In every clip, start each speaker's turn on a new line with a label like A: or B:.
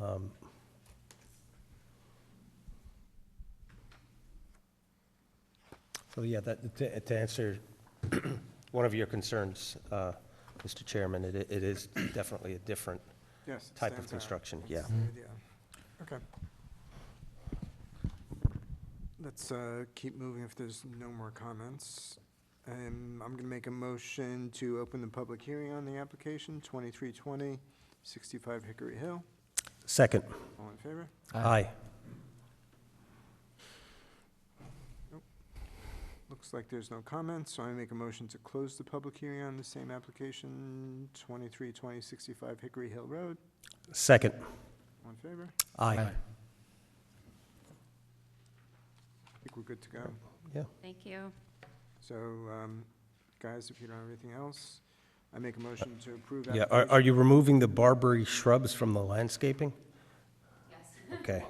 A: Um, So, yeah, that, to to answer one of your concerns, uh, Mr. Chairman, it it is definitely a different
B: Yes. it
A: type of
B: stands out.
A: construction, yeah.
B: That's the idea. Okay. Let's uh, keep moving if there's no more comments. And I'm going to make a motion to open the public hearing on the application, 2320, 65 Hickory Hill.
A: Second,
B: All in favor?
A: aye.
B: Looks like there's no comments, so I make a motion to close the public hearing on the same application, 2320, 65 Hickory Hill Road.
A: Second,
B: All in favor?
A: aye.
B: I think we're good to go.
C: Thank you.
B: So, um, guys, if you don't have anything else, I make a motion to approve.
A: Yeah, are are you removing the Barbary shrubs from the landscaping? Yes. Okay.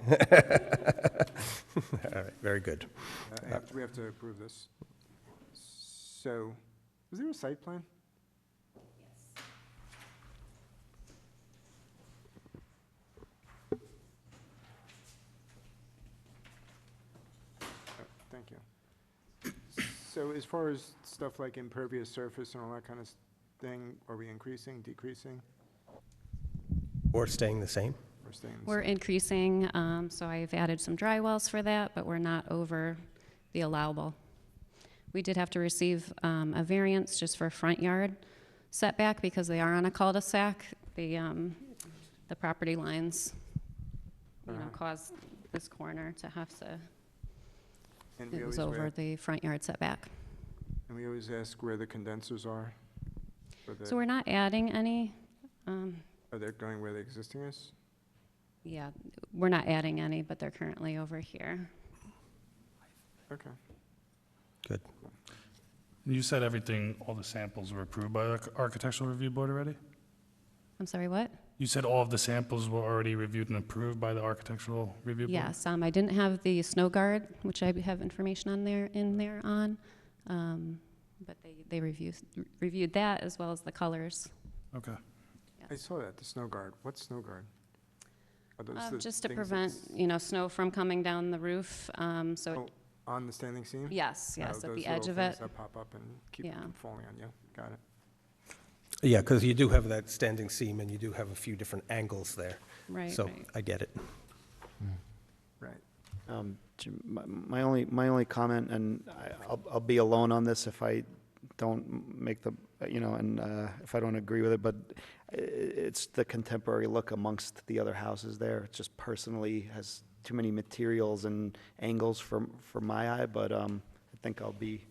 A: All right, very good.
B: application- uh, have- We have to approve this. So, was there a site plan? Yes. Oh, Thank you. So as far as stuff like impervious surface and all that kind of s- thing, are we increasing, decreasing,
A: Or staying the same?
B: or staying? the
C: We're increasing, um, so I've added some dry wells for that, but we're not over the allowable. We did have to receive um, a variance just for a front yard setback because they are on a cul-de-sac. The, um, the property lines, you know,
B: Alright.
C: caused this corner to have to,
B: And we
C: it was
B: always
C: over
B: wait.
C: the front yard setback.
B: And we always ask where the condensers are? Are
C: So
B: they,
C: we're not adding any, um,
B: are they going where the existing is?
C: yeah, we're not adding any, but they're currently over here.
B: Okay.
A: Good.
D: You said everything, all the samples were approved by the Architectural Review Board already?
C: I'm sorry, what?
D: You said all of the samples were already reviewed and approved by the Architectural Review Board?
C: Yes, um, I didn't have the snow guard, which I have information on there, in there on. Um, but they, they reviewed, reviewed that as well as the colors.
D: Okay.
B: I saw that, the snow guard. What's snow guard? Are those
C: Um,
B: the
C: just to
B: things
C: prevent,
B: that's
C: you know, snow from coming down the roof, um, so, it-
B: On the standing seam?
C: yes,
B: Oh,
C: yes, at
B: those
C: the edge
B: little
C: of
B: things
C: it.
B: that pop up and keep it
C: Yeah.
B: from falling on you. Got it.
A: Yeah, because you do have that standing seam, and you do have a few different angles there.
C: Right,
A: So
C: right.
A: I get it.
B: Right.
E: Um, Jim, My my only, my only comment, and I- I'll, I'll be alone on this if I don't make the, you know, and uh, if I don't agree with it, but i- it's the contemporary look amongst the other houses there. It just personally has too many materials and angles for, for my eye, but um, I think I'll be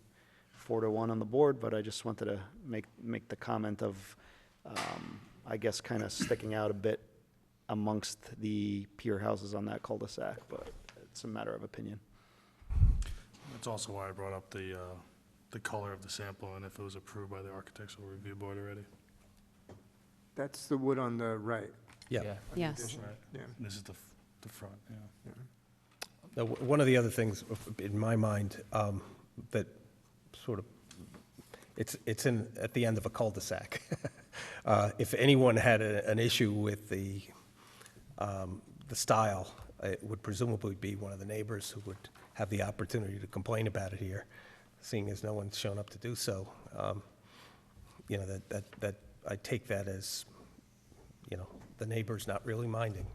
E: four to one on the board, but I just wanted to make, make the comment of, um, I guess, kind of sticking out a bit amongst the pier houses on that cul-de-sac, but it's a matter of opinion.
D: That's also why I brought up the, uh, the color of the sample and if it was approved by the Architectural Review Board already.
B: That's the wood on the right.
A: Yeah.
B: on the
C: Yes,
B: addition.
D: Right.
B: Yeah.
D: This is the, f- the front, yeah.
B: yeah.
A: Now, w- One of the other things uh, in my mind um, that sort of, it's, it's in, at the end of a cul-de-sac. Uh, If anyone had a- an issue with the, um, the style, it would presumably be one of the neighbors who would have the opportunity to complain about it here, seeing as no one's shown up to do so. Um, You know, that, that, that, I take that as, you know, the neighbor's not really minding,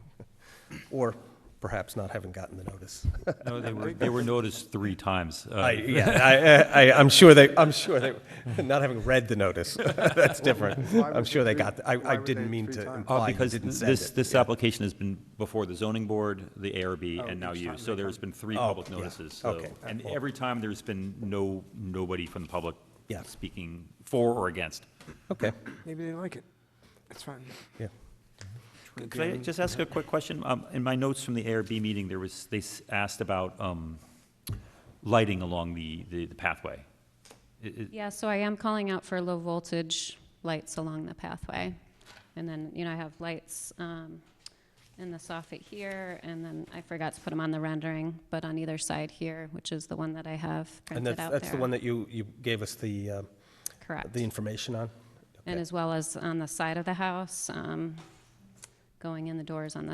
A: or perhaps not having gotten the notice.
F: No, they were, they were noticed three times. uh,
A: I, yeah, I, I, I'm sure they, I'm sure they, not having read the notice, that's different.
B: Why would
A: I'm sure they
B: three-
A: got, I,
B: why
A: I
B: would
A: didn't
B: they
A: mean
B: three
A: to
B: times?
F: uh,
A: imply you
F: Because
A: didn't
F: th-
A: send
F: this,
A: it.
F: this application has been before the zoning board, the ARB, and now
B: each
F: you.
B: time
F: So
B: they
F: there's been three
A: Oh,
F: public
A: yeah.
F: notices. so-
A: Okay.
F: And
A: Well-
F: every time, there's been no, nobody from the public
A: Yeah.
F: speaking for or against.
A: Okay,
B: Maybe they like it. It's fine.
A: yeah.
F: Could I just ask a quick question? Um, In my notes from the ARB meeting, there was, they s- asked about um, lighting along the, the the pathway. I- i-
C: yeah, so I am calling out for low voltage lights along the pathway. And then, you know, I have lights, um, in the soffit here, and then I forgot to put them on the rendering, but on either side here, which is the one that I have
A: And
C: printed
A: that's,
C: out there.
A: that's the one that you, you gave us the, uh,
C: Correct.
A: the information on?
C: And
A: Okay.
C: as well as on the side of the house, um, going in the doors on the